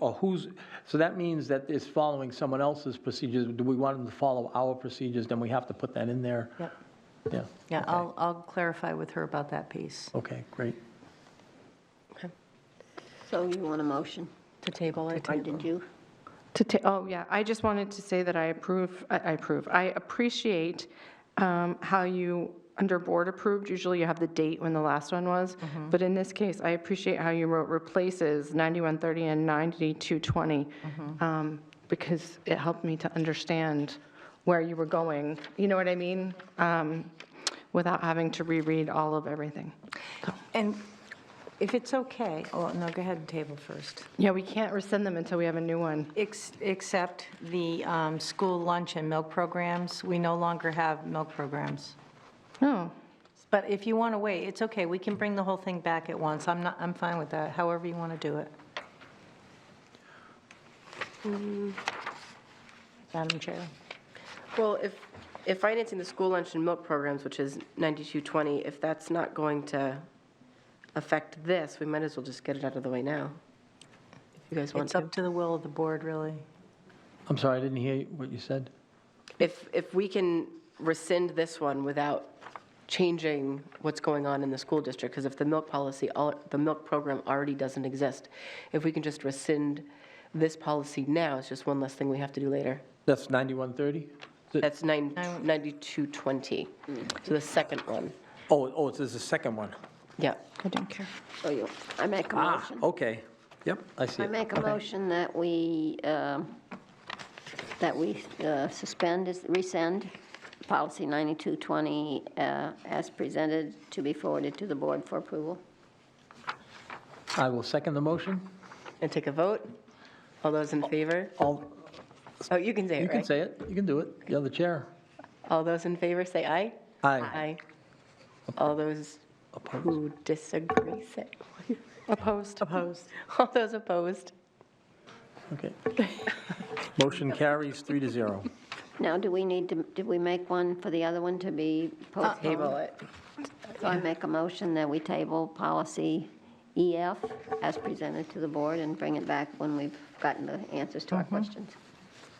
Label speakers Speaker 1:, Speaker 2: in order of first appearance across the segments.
Speaker 1: Or who's, so that means that it's following someone else's procedures. Do we want them to follow our procedures? Then we have to put that in there?
Speaker 2: Yep.
Speaker 1: Yeah,
Speaker 2: Yeah, I'll, I'll clarify with her about that piece.
Speaker 1: okay, great.
Speaker 3: So you want a motion,
Speaker 2: To table it?
Speaker 3: or did you?
Speaker 4: To ta, oh, yeah, I just wanted to say that I approve, I I approve, I appreciate um, how you, under board approved, usually you have the date when the last one was, but in this case, I appreciate how you wrote replaces 9130 and 9220, um, because it helped me to understand where you were going, you know what I mean? Um, Without having to reread all of everything. So,
Speaker 2: And if it's okay, oh, no, go ahead and table first.
Speaker 4: Yeah, we can't rescind them until we have a new one.
Speaker 2: Ex- Except the um, school lunch and milk programs, we no longer have milk programs.
Speaker 4: Oh,
Speaker 2: But if you want to wait, it's okay, we can bring the whole thing back at once. I'm not, I'm fine with that, however you want to do it. Madam Chair?
Speaker 5: Well, if, if financing the school lunch and milk programs, which is 9220, if that's not going to affect this, we might as well just get it out of the way now. If you guys want
Speaker 2: It's
Speaker 5: to.
Speaker 2: up to the will of the board, really.
Speaker 1: I'm sorry, I didn't hear what you said.
Speaker 5: If, if we can rescind this one without changing what's going on in the school district, because if the milk policy, al- the milk program already doesn't exist, if we can just rescind this policy now, it's just one less thing we have to do later.
Speaker 1: That's 9130? Is it-
Speaker 5: That's nine- 9220, so the second one.
Speaker 1: Oh, oh, it's there's a second one.
Speaker 5: Yeah.
Speaker 4: I don't care.
Speaker 3: So you, I make a
Speaker 1: Ah,
Speaker 3: motion.
Speaker 1: okay, yep, I see.
Speaker 3: I
Speaker 1: it.
Speaker 3: make a motion that we, um, that we uh, suspend, is- rescind policy 9220 uh, as presented to be forwarded to the board for approval.
Speaker 1: I will second the motion.
Speaker 5: And take a vote. All those in favor?
Speaker 1: All,
Speaker 5: Oh, you can say
Speaker 1: you
Speaker 5: it,
Speaker 1: can
Speaker 5: right?
Speaker 1: say it, you can do it, you're the chair.
Speaker 5: All those in favor, say aye.
Speaker 1: Aye.
Speaker 5: All those who disagree, say,
Speaker 4: Opposed?
Speaker 5: opposed. All those opposed?
Speaker 1: Okay. Motion carries three to zero.
Speaker 3: Now, do we need to, did we make one for the other one to be postponed?
Speaker 5: Table it.
Speaker 3: So I make a motion that we table policy EF as presented to the board and bring it back when we've gotten the answers to our
Speaker 1: Mm-hmm.
Speaker 3: questions.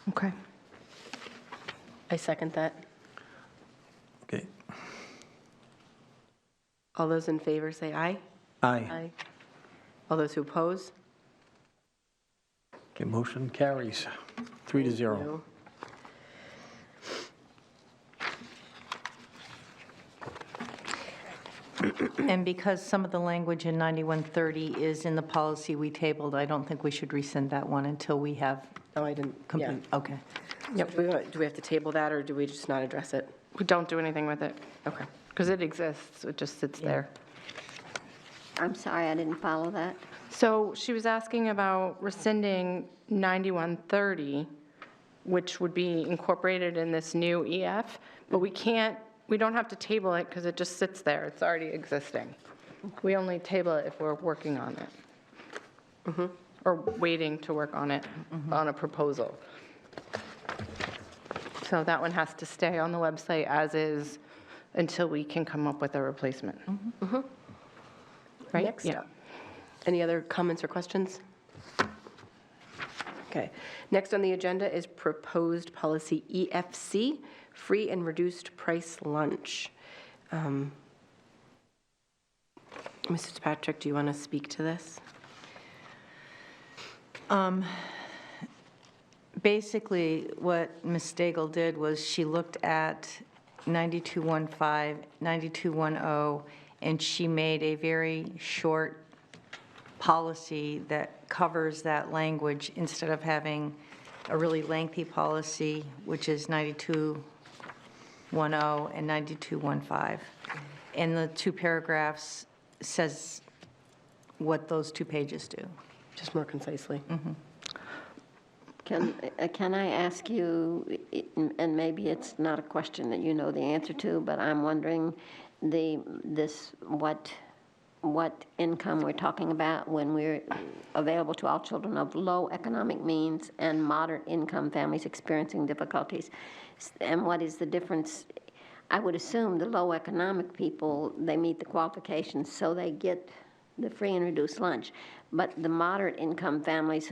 Speaker 4: Okay.
Speaker 5: I second that.
Speaker 1: Okay,
Speaker 5: All those in favor, say aye.
Speaker 1: aye.
Speaker 5: All those who oppose?
Speaker 1: Okay, motion carries three to zero.
Speaker 5: No.
Speaker 2: And because some of the language in 9130 is in the policy we tabled, I don't think we should rescind that one until we have
Speaker 5: No, Oh, I didn't. Yeah.
Speaker 2: complete, okay.
Speaker 5: So Do we want- do we have to table that, or do we just not address it?
Speaker 4: We don't do anything with it,
Speaker 5: Okay.
Speaker 4: because it exists, it just sits there.
Speaker 3: I'm sorry, I didn't follow that.
Speaker 4: So she was asking about rescinding 9130, which would be incorporated in this new EF, but we can't, we don't have to table it because it just sits there, it's already existing. We only table it if we're working on it.
Speaker 5: Mm-hmm.
Speaker 4: Or waiting to work on it, on a proposal. So that one has to stay on the website as is until we can come up with a replacement. Right?
Speaker 5: Mm-hmm. Next
Speaker 4: Yeah.
Speaker 5: up. Any other comments or questions? Okay. Next on the agenda is proposed policy EFC, free and reduced price lunch. Um, Mrs. Patrick, do you want to speak to this?
Speaker 2: Basically, what Ms. Stagel did was she looked at 9215, 9210, oh, and she made a very short policy that covers that language instead of having a really lengthy policy, which is 9210 and 9215. And the two paragraphs says what those two pages do.
Speaker 5: Just more concisely.
Speaker 3: Can, uh, can I ask you, i- and maybe it's not a question that you know the answer to, but I'm wondering the, this, what, what income we're talking about when we're available to all children of low economic means and moderate income families experiencing difficulties? S- And what is the difference? I would assume the low economic people, they meet the qualifications, so they get the free and reduced lunch. But the moderate income families who